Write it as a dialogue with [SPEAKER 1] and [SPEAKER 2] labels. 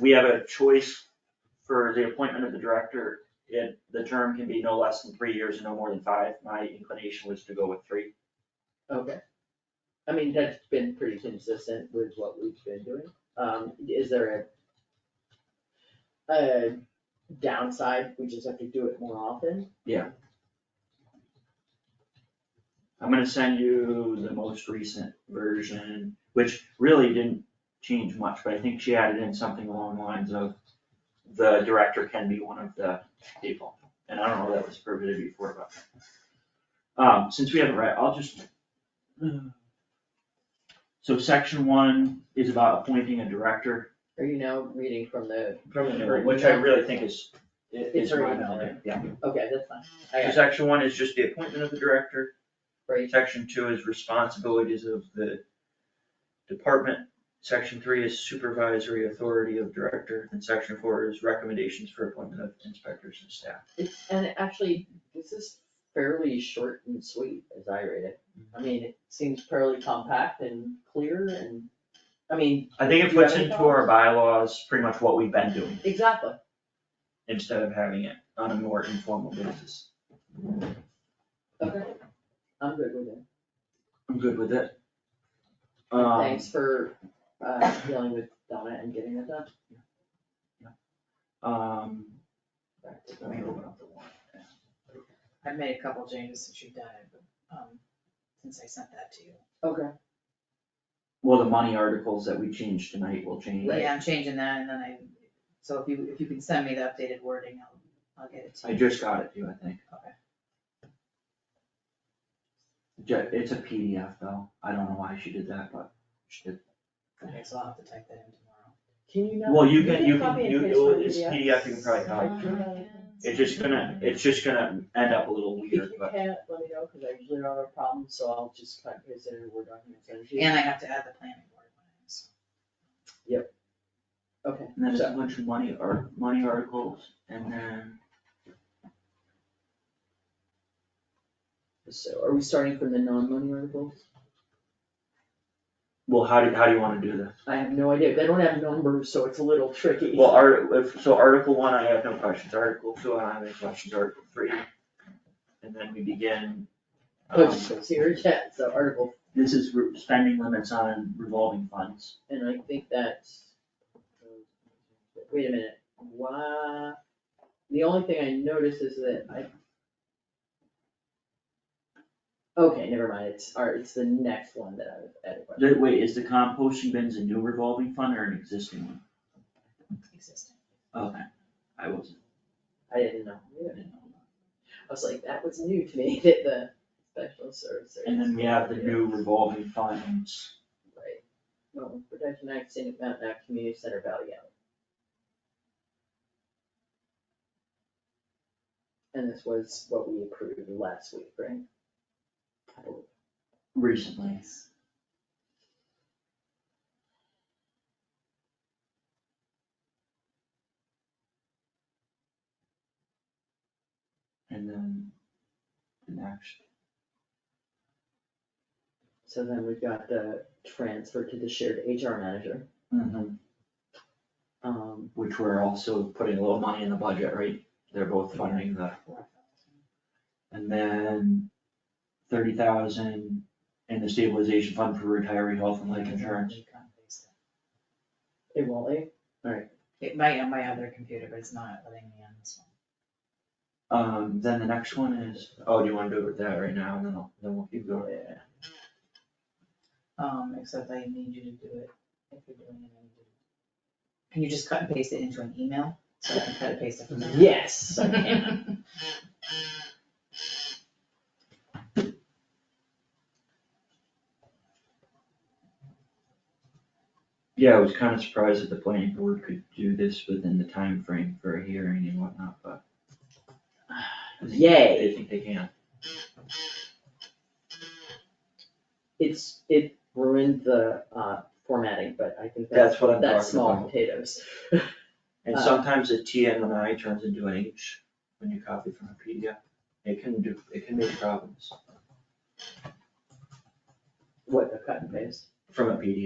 [SPEAKER 1] we have a choice for the appointment of the director. It, the term can be no less than three years and no more than five. My inclination was to go with three.
[SPEAKER 2] Okay. I mean, that's been pretty consistent with what we've been doing. Um, is there a a downside? We just have to do it more often?
[SPEAKER 1] I'm gonna send you the most recent version, which really didn't change much, but I think she added in something along the lines of the director can be one of the people, and I don't know if that was prohibited before, but. Um, since we haven't read, I'll just. So section one is about appointing a director.
[SPEAKER 2] Are you now reading from the,
[SPEAKER 1] From the new one, which I really think is, i- is
[SPEAKER 2] It's already
[SPEAKER 1] my
[SPEAKER 2] down
[SPEAKER 1] favorite, yeah.
[SPEAKER 2] okay, that's fine. I
[SPEAKER 1] So
[SPEAKER 2] got it.
[SPEAKER 1] section one is just the appointment of the director,
[SPEAKER 2] Right,
[SPEAKER 1] section two is responsibilities of the department, section three is supervisory authority of director, and section four is recommendations for appointment of inspectors and staff.
[SPEAKER 2] It's- and actually, this is fairly short and sweet as I read it. I mean, it seems fairly compact and clear and, I mean,
[SPEAKER 1] I think it
[SPEAKER 2] Do you have
[SPEAKER 1] puts
[SPEAKER 2] any
[SPEAKER 1] into our bylaws pretty much what we've been doing,
[SPEAKER 2] exactly.
[SPEAKER 1] instead of having it on a more informal basis.
[SPEAKER 2] Okay. I'm good with it.
[SPEAKER 1] I'm good with it. Um,
[SPEAKER 2] Thanks for uh dealing with Donna and getting that done.
[SPEAKER 1] Um,
[SPEAKER 2] Back to
[SPEAKER 1] let me
[SPEAKER 2] Donna.
[SPEAKER 1] open up the one.
[SPEAKER 3] I've made a couple changes since you've done it, but, um, since I sent that to you.
[SPEAKER 2] Okay,
[SPEAKER 1] Well, the money articles that we changed tonight will change.
[SPEAKER 3] Yeah, I'm changing that and then I, so if you, if you can send me the updated wording, I'll, I'll get it to
[SPEAKER 1] I
[SPEAKER 3] you.
[SPEAKER 1] just got it too, I think.
[SPEAKER 3] Okay.
[SPEAKER 1] Ju- It's a PDF though, I don't know why she did that, but she did.
[SPEAKER 3] Okay, so I'll have to type that in tomorrow.
[SPEAKER 2] can you not?
[SPEAKER 1] Well, you can, you can,
[SPEAKER 2] copy and
[SPEAKER 1] you,
[SPEAKER 2] paste from
[SPEAKER 1] it's
[SPEAKER 2] PDF.
[SPEAKER 1] PDF, you can probably copy. uh, It's just gonna, it's just gonna end up a little
[SPEAKER 2] If
[SPEAKER 1] weird,
[SPEAKER 2] you
[SPEAKER 1] but
[SPEAKER 2] can't, let me know, cause I usually don't have a problem, so I'll just cut and paste it in a Word document, send it to you.
[SPEAKER 3] And I have to add the planning board one, in, so.
[SPEAKER 2] Okay,
[SPEAKER 1] and that's a bunch of money or money articles and then.
[SPEAKER 2] so are we starting from the non-money articles?
[SPEAKER 1] Well, how do, how do you wanna do this?
[SPEAKER 2] I have no idea, they don't have numbers, so it's a little tricky.
[SPEAKER 1] Well, art, if, so article one, I have no questions, article two, I don't have any questions, article three. And then we begin. um,
[SPEAKER 2] But here, yeah, so article,
[SPEAKER 1] This is re- spending limits on revolving funds.
[SPEAKER 2] and I think that's. Wait a minute, why, the only thing I noticed is that I. Okay, never mind, it's, all right, it's the next one that I was at.
[SPEAKER 1] The- Wait, is the composting bins a new revolving fund or an existing one?
[SPEAKER 3] Existing.
[SPEAKER 1] Okay, I wasn't.
[SPEAKER 2] I didn't know, I didn't know. I was like, that was new to me, that the special services.
[SPEAKER 1] And then we have the new revolving funds.
[SPEAKER 2] Right. Well, Protection Act, St. Mountain Act, Community Center Valley Gallery. And this was what we approved last week, right?
[SPEAKER 1] Recently. And then the next,
[SPEAKER 2] So then we've got the transfer to the shared HR manager.
[SPEAKER 1] Mm-hmm.
[SPEAKER 2] Um,
[SPEAKER 1] which we're also putting a little money in the budget, right? They're both funding the, and then thirty thousand in the stabilization fund for retiree health and life insurance.
[SPEAKER 2] it won't leave.
[SPEAKER 3] It might on my other computer, but it's not letting me on this one.
[SPEAKER 1] Um, then the next one is, oh, do you wanna do it with that right now, and then I'll, then we'll keep going.
[SPEAKER 3] Um, except I need you to do it, if you're doing it, I need you to. Can you just cut and paste it into an email, so I can cut and paste it from there?
[SPEAKER 2] Yes, I can.
[SPEAKER 1] Yeah, I was kinda surprised that the planning board could do this within the time frame for a hearing and whatnot, but. I think-
[SPEAKER 2] Yay.
[SPEAKER 1] I think they can.
[SPEAKER 2] It's, it ruined the, uh, formatting, but I think that's,
[SPEAKER 1] That's what I'm talking about.
[SPEAKER 2] that's small potatoes.
[SPEAKER 1] And
[SPEAKER 2] Uh,
[SPEAKER 1] sometimes a T and an I turns into an H when you copy from a PDF. It can do, it can make problems
[SPEAKER 2] What, the cut and paste?
[SPEAKER 1] from a PDF.